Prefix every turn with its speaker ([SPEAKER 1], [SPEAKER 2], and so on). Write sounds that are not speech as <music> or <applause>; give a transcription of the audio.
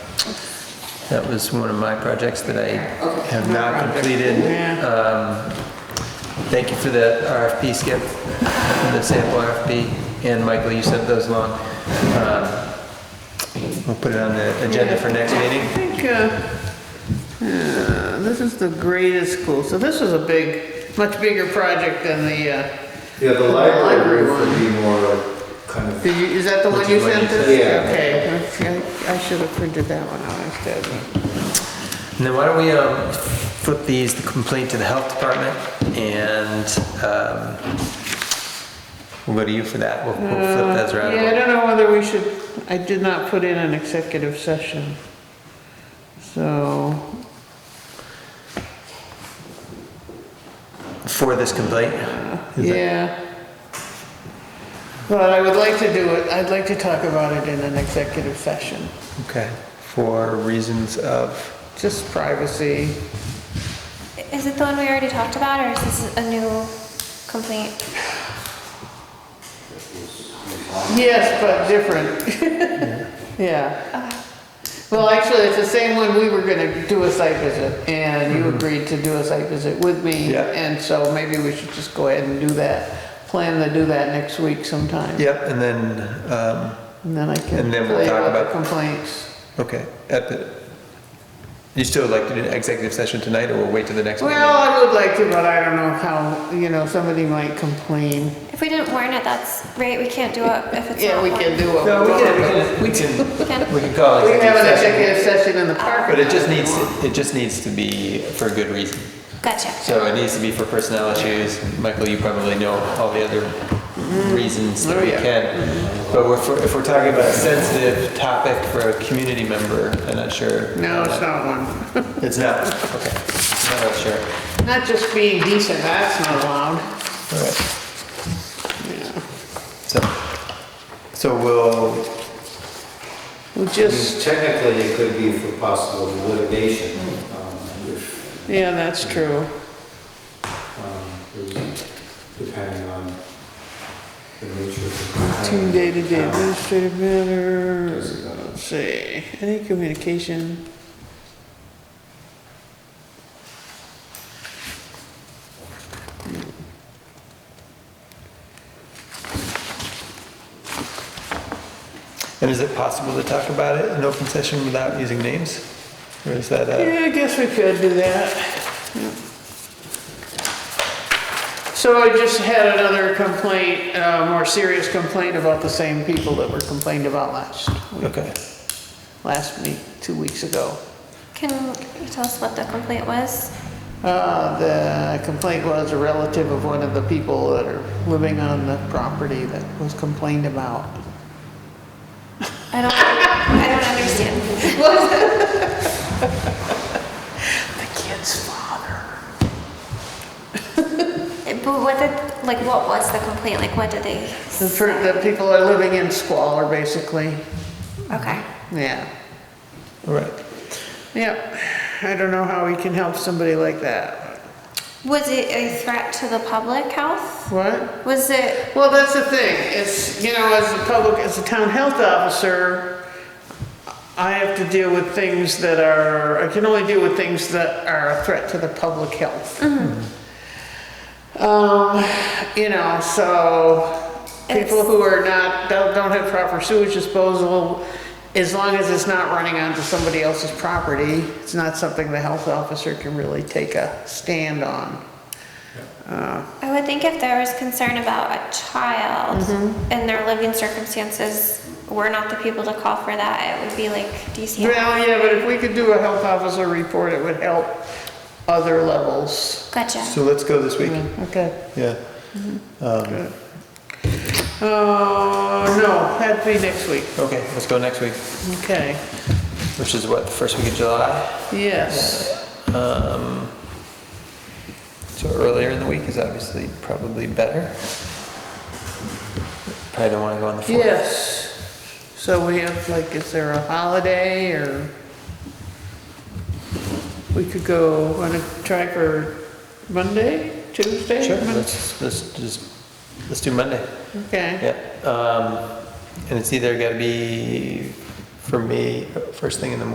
[SPEAKER 1] That was one of my projects that I
[SPEAKER 2] Okay.
[SPEAKER 1] have not completed. Um, Thank you for the RFP, Skip, and the sample RFP, and Michael, you sent those along. Um, We'll put it on the agenda for next meeting.
[SPEAKER 3] I think, uh, yeah, this is the graded school, so this is a big, much bigger project than the, uh,
[SPEAKER 4] Yeah, the
[SPEAKER 3] library
[SPEAKER 4] library would be more like kind of,
[SPEAKER 3] did you, is that the one
[SPEAKER 1] Which
[SPEAKER 3] you
[SPEAKER 1] is what you
[SPEAKER 3] sent us?
[SPEAKER 4] said. Yeah.
[SPEAKER 3] Okay, I should have printed that one out instead.
[SPEAKER 1] And then why don't we um, flip these, the complaint to the health department, and um, we'll go to you for that. We'll we'll flip those around.
[SPEAKER 3] Yeah, I don't know whether we should, I did not put in an executive session. So,
[SPEAKER 1] For this complaint? Is that-
[SPEAKER 3] yeah. But I would like to do it, I'd like to talk about it in an executive session,
[SPEAKER 1] Okay, for reasons of?
[SPEAKER 3] just privacy.
[SPEAKER 5] Is it the one we already talked about, or is this a new complaint?
[SPEAKER 3] Yes, but different. <laughs> Yeah. Well, actually, it's the same one, we were gonna do a site visit, and you agreed to do a site visit with me.
[SPEAKER 1] Mm-hmm. Yeah.
[SPEAKER 3] And so maybe we should just go ahead and do that, plan to do that next week sometime.
[SPEAKER 1] Yep, and then, um,
[SPEAKER 3] And then I can
[SPEAKER 1] And then we'll
[SPEAKER 3] play
[SPEAKER 1] talk
[SPEAKER 3] out the
[SPEAKER 1] about-
[SPEAKER 3] complaints.
[SPEAKER 1] okay, at the, you still like to do an executive session tonight, or we'll wait till the next meeting?
[SPEAKER 3] Well, I would like to, but I don't know how, you know, somebody might complain.
[SPEAKER 5] If we didn't warn it, that's right, we can't do it if it's
[SPEAKER 3] Yeah,
[SPEAKER 5] not
[SPEAKER 3] we
[SPEAKER 5] warned.
[SPEAKER 3] can do it.
[SPEAKER 1] No, we can, we can, we can, we can call an
[SPEAKER 3] We have an
[SPEAKER 1] executive session.
[SPEAKER 3] executive session in the park.
[SPEAKER 1] But it just needs, to- it just needs to be for a good reason.
[SPEAKER 5] Gotcha.
[SPEAKER 1] So it needs to be for personnel issues. Michael, you probably know all the other Mm-hmm. reasons that
[SPEAKER 3] Oh,
[SPEAKER 1] we
[SPEAKER 3] yeah.
[SPEAKER 1] can. But if we're, if we're talking about a sensitive topic for a community member, I'm not sure.
[SPEAKER 3] No, it's not one.
[SPEAKER 1] It's not, okay. I'm not sure.
[SPEAKER 3] Not just being decent, that's not allowed.
[SPEAKER 1] All right. So, so we'll,
[SPEAKER 3] We
[SPEAKER 4] I mean,
[SPEAKER 3] just,
[SPEAKER 4] technically it could be for possible litigation. um, if,
[SPEAKER 3] yeah, that's true.
[SPEAKER 4] um, Depending on the nature of the.
[SPEAKER 3] Team
[SPEAKER 4] complaint.
[SPEAKER 3] day-to-day
[SPEAKER 4] Um,
[SPEAKER 3] administrative matter, let's see, any communication?
[SPEAKER 1] and is it possible to talk about it in open session without using names? Or is that, uh,
[SPEAKER 3] Yeah, I guess we could do that. So I just had another complaint, uh, more serious complaint about the same people that were complained about last,
[SPEAKER 1] okay.
[SPEAKER 3] last week, two weeks ago.
[SPEAKER 5] Can you tell us what the complaint was?
[SPEAKER 3] Uh, The complaint was a relative of one of the people that are living on the property that was complained about.
[SPEAKER 5] I don't, I don't understand.
[SPEAKER 3] The kid's father.
[SPEAKER 5] But what did, like, what was the complaint? Like, what did they,
[SPEAKER 3] The per- the people are living in squalor, basically.
[SPEAKER 5] okay.
[SPEAKER 3] Yeah.
[SPEAKER 1] All right.
[SPEAKER 3] Yep. I don't know how we can help somebody like that.
[SPEAKER 5] Was it a threat to the public health?
[SPEAKER 3] What?
[SPEAKER 5] Was it,
[SPEAKER 3] Well, that's the thing. It's, you know, as a public, as a town health officer, I have to deal with things that are, I can only deal with things that are a threat to the public health. Um, you know, so people
[SPEAKER 5] It's-
[SPEAKER 3] who are not, don't, don't have proper sewage disposal, as long as it's not running onto somebody else's property, it's not something the health officer can really take a stand on.
[SPEAKER 5] I would think if there was concern about a child
[SPEAKER 3] Mm-hmm.
[SPEAKER 5] and their living circumstances, we're not the people to call for that. It would be like DCF.
[SPEAKER 3] Well, yeah, but if we could do a health officer report, it would help other levels.
[SPEAKER 5] Gotcha.
[SPEAKER 1] So let's go this week.
[SPEAKER 3] Okay.
[SPEAKER 1] Yeah. Um,
[SPEAKER 3] Oh, no, that'd be next week.
[SPEAKER 1] okay, let's go next week,
[SPEAKER 3] Okay,
[SPEAKER 1] which is what, the first week of July?
[SPEAKER 3] yes.
[SPEAKER 1] Um, so earlier in the week is obviously probably better. Probably don't want to go on the fourth.
[SPEAKER 3] Yes. So we have, like, is there a holiday or? We could go, wanna try for Monday, Tuesday?
[SPEAKER 1] Sure,
[SPEAKER 3] Mon-
[SPEAKER 1] let's, let's just, let's do Monday.
[SPEAKER 3] Okay,
[SPEAKER 1] Yeah, um, and it's either gotta be, for me, first thing in the morning